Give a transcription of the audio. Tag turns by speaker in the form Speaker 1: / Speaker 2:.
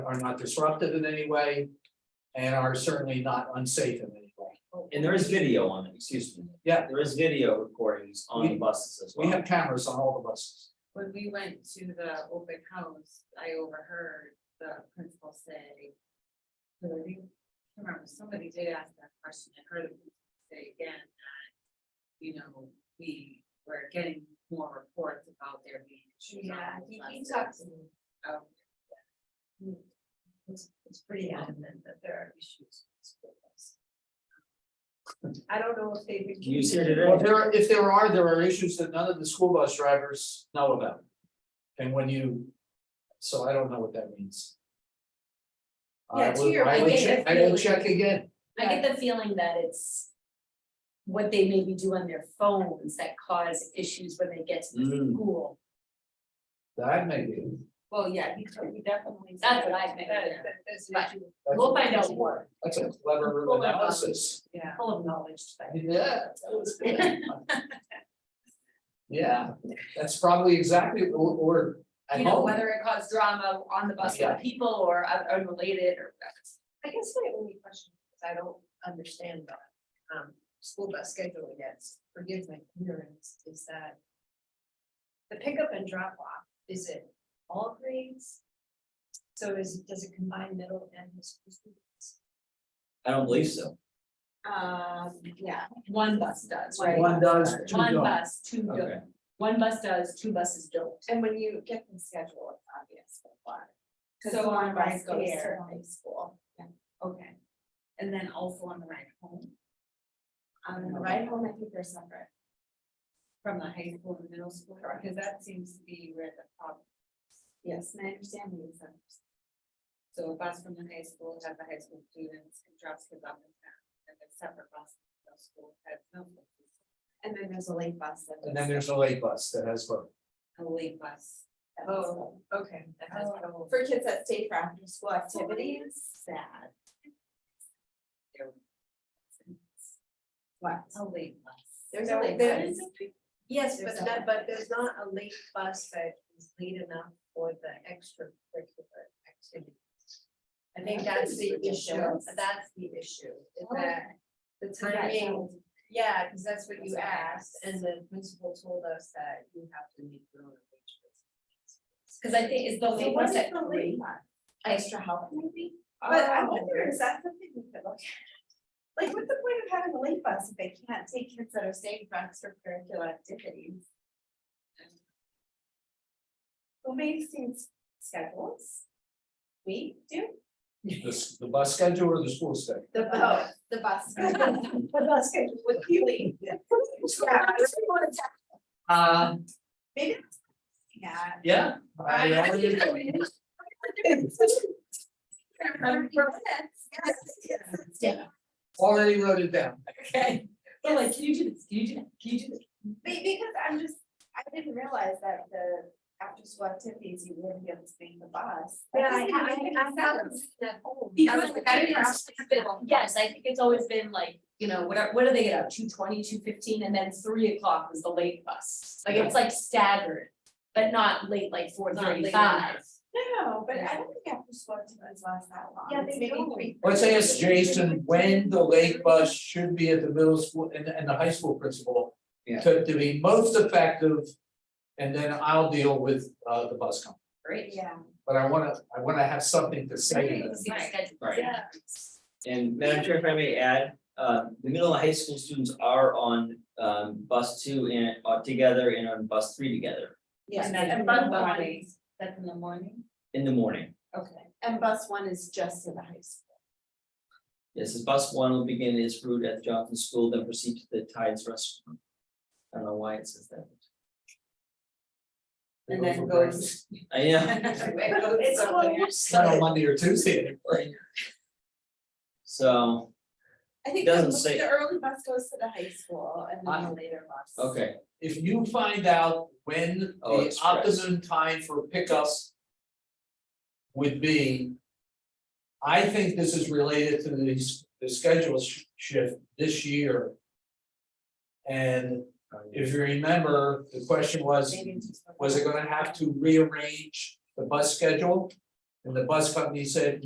Speaker 1: are not disruptive in any way and are certainly not unsafe in any way.
Speaker 2: And there is video on it, excuse me.
Speaker 1: Yeah.
Speaker 2: There is video recordings on the
Speaker 1: We-
Speaker 2: buses as well.
Speaker 1: We have cameras on all the buses.
Speaker 3: when we went to the open house, I overheard the principal say. "Who are you?" I can't Remember, somebody did ask that question, I heard him say again that, you know, we were getting more reports about there being issues on
Speaker 4: Yeah,
Speaker 3: the
Speaker 4: he, he
Speaker 3: buses.
Speaker 4: talks, and
Speaker 3: Oh,
Speaker 4: it's, it's pretty adamant that there are issues. with school bus. I don't know if they've. been-
Speaker 2: He was here
Speaker 1: Well,
Speaker 2: today.
Speaker 1: there, are- if there are, there are issues that none of the school bus drivers know about. And when you, so I don't know what that means. I
Speaker 4: Yeah, to
Speaker 1: would-
Speaker 4: your
Speaker 1: I would
Speaker 4: point,
Speaker 1: check,
Speaker 4: if
Speaker 1: I would
Speaker 4: they-
Speaker 1: check again.
Speaker 5: I get the feeling that it's. What they maybe do on their phones that cause issues when they get to the
Speaker 2: Mm.
Speaker 5: school.
Speaker 1: That may be.
Speaker 3: Well, yeah, he told me definitely. said
Speaker 5: That's what I think,
Speaker 3: that-
Speaker 5: yeah.
Speaker 3: that there's an
Speaker 5: But-
Speaker 3: issue,
Speaker 1: That's-
Speaker 5: We'll find out more,
Speaker 1: That's a clever
Speaker 5: Full of-
Speaker 1: analysis.
Speaker 3: Yeah,
Speaker 5: full of knowledge today.
Speaker 1: Yeah. that was good. Yeah, that's probably exactly, or, or at
Speaker 5: You know,
Speaker 1: home,
Speaker 5: whether it caused drama on the bus
Speaker 1: Yeah.
Speaker 5: with people or un- unrelated or.
Speaker 4: I guess my only question, is I don't understand that, um, school bus scheduling is, forgive my ignorance, is that. The pickup and drop off, is it all grades? So is, does it combine middle and high school students?
Speaker 2: I don't believe so.
Speaker 5: Um, yeah, one bus does, right?
Speaker 1: one does, two
Speaker 5: One
Speaker 1: don't.
Speaker 5: bus, two
Speaker 2: Okay.
Speaker 5: don't. One bus does, two buses don't.
Speaker 4: And when you get them scheduled, it's obvious why.
Speaker 5: So one bus
Speaker 4: right
Speaker 5: goes to
Speaker 4: there.
Speaker 5: high school.
Speaker 3: okay. And then also on the ride home
Speaker 4: On the ride home, I think they're separate.
Speaker 3: from the high school and middle school, because that seems to be where the problem
Speaker 4: Yes, and I understand the incentives.
Speaker 3: So a bus from the high school has the high school students and drops kids off in town, and then separate bus from the middle school has no. students.
Speaker 4: And then there's a late bus. that
Speaker 1: and then there's a late bus that has both.
Speaker 3: A late bus.
Speaker 4: does that. Oh, okay. That has
Speaker 3: Oh.
Speaker 4: trouble. For kids that stay for after school activities,
Speaker 5: Sad.
Speaker 4: what?
Speaker 5: Oh,
Speaker 3: A late bus.
Speaker 4: There's a
Speaker 3: No,
Speaker 4: late
Speaker 3: there
Speaker 4: bus.
Speaker 3: is a-
Speaker 4: Yes,
Speaker 3: There's
Speaker 4: but
Speaker 3: a-
Speaker 4: that, but there's not a late bus that is late enough for the extracurricular activities. I think that's the issue,
Speaker 5: ridiculous.
Speaker 4: that's the issue, is
Speaker 5: Oh.
Speaker 4: that the
Speaker 5: that
Speaker 4: timing, yeah, because that's what you
Speaker 5: That's what I
Speaker 4: asked,
Speaker 5: asked.
Speaker 4: and the principal told us that you have to make your own arrangements.
Speaker 5: Cause I think is the late bus at three.
Speaker 4: Extra help maybe? Oh.
Speaker 5: But I
Speaker 4: wonder, is that something we could look at? Like, what's the point of having a late bus if they can't take kids that are staying for extracurricular activities? Well, maybe since schedules. We do.
Speaker 1: The, s- the bus schedule or the school schedule?
Speaker 4: The bus, the bus. The bus schedule with Keely.
Speaker 5: Uh,
Speaker 1: Um,
Speaker 4: Maybe. that's- Yeah.
Speaker 1: yeah. I- I would agree. Already wrote it down.
Speaker 5: Okay. They're like, can you do this? Can you do that? Can you do this?
Speaker 4: Be- Because I'm just, I didn't realize that the after school activities, you wouldn't be able to take the bus.
Speaker 3: Yeah, I-
Speaker 4: That doesn't make
Speaker 3: I- I-
Speaker 4: any
Speaker 3: I-
Speaker 4: sense.
Speaker 5: Because
Speaker 4: That's
Speaker 5: I
Speaker 4: the
Speaker 5: think it's just been- yes, I think it's always been like, you know, what are, what do they get out, two twenty, two fifteen, and then three o'clock was the late bus. Like, it's like staggered, but not late, like four
Speaker 3: Not late
Speaker 5: thirty-five.
Speaker 4: No, but I don't think after school activities last that long.
Speaker 5: Yeah,
Speaker 4: It's
Speaker 5: they
Speaker 4: maybe
Speaker 5: don't.
Speaker 4: three-
Speaker 1: Let's ask Jason when the late bus should be at the middle school and, and the high school principal
Speaker 2: Yeah.
Speaker 1: to, to be most effective. And then I'll deal with, uh, the bus company,
Speaker 5: Great.
Speaker 4: Yeah.
Speaker 1: but I wanna, I wanna have something to say to them.
Speaker 5: See the
Speaker 3: Right.
Speaker 5: schedule.
Speaker 2: Right. And Madam Chair, if I may add, uh, the middle and high school students are on, um, bus two and, uh, together and on bus three together
Speaker 4: Yeah,
Speaker 3: And that's
Speaker 4: and
Speaker 3: in the
Speaker 4: bus
Speaker 3: morning,
Speaker 4: one,
Speaker 3: that's in the morning,
Speaker 2: in the morning.
Speaker 4: okay, and bus one is just in the high school.
Speaker 2: This is bus one will begin its route at Johnson School, then proceed to the Tides Restaurant. I don't know why it says that.
Speaker 1: They
Speaker 3: and
Speaker 1: go
Speaker 3: then
Speaker 1: for
Speaker 3: goes.
Speaker 2: I know,
Speaker 3: It goes
Speaker 4: It's
Speaker 3: somewhere.
Speaker 1: breakfast. Not on Monday or Tuesday anymore.
Speaker 2: so,
Speaker 4: I think
Speaker 2: Doesn't
Speaker 4: the
Speaker 2: say.
Speaker 4: the early bus goes to the high school and then
Speaker 1: Uh,
Speaker 4: the later bus.
Speaker 2: okay,
Speaker 1: If you find out when
Speaker 2: Oh,
Speaker 1: the
Speaker 2: express.
Speaker 1: optimum time for pickups would be, I think this is related to these, the schedule sh- shift this year. And if you remember, the question was,
Speaker 4: Maybe it's just-
Speaker 1: was it gonna have to rearrange the bus schedule? And the bus company said,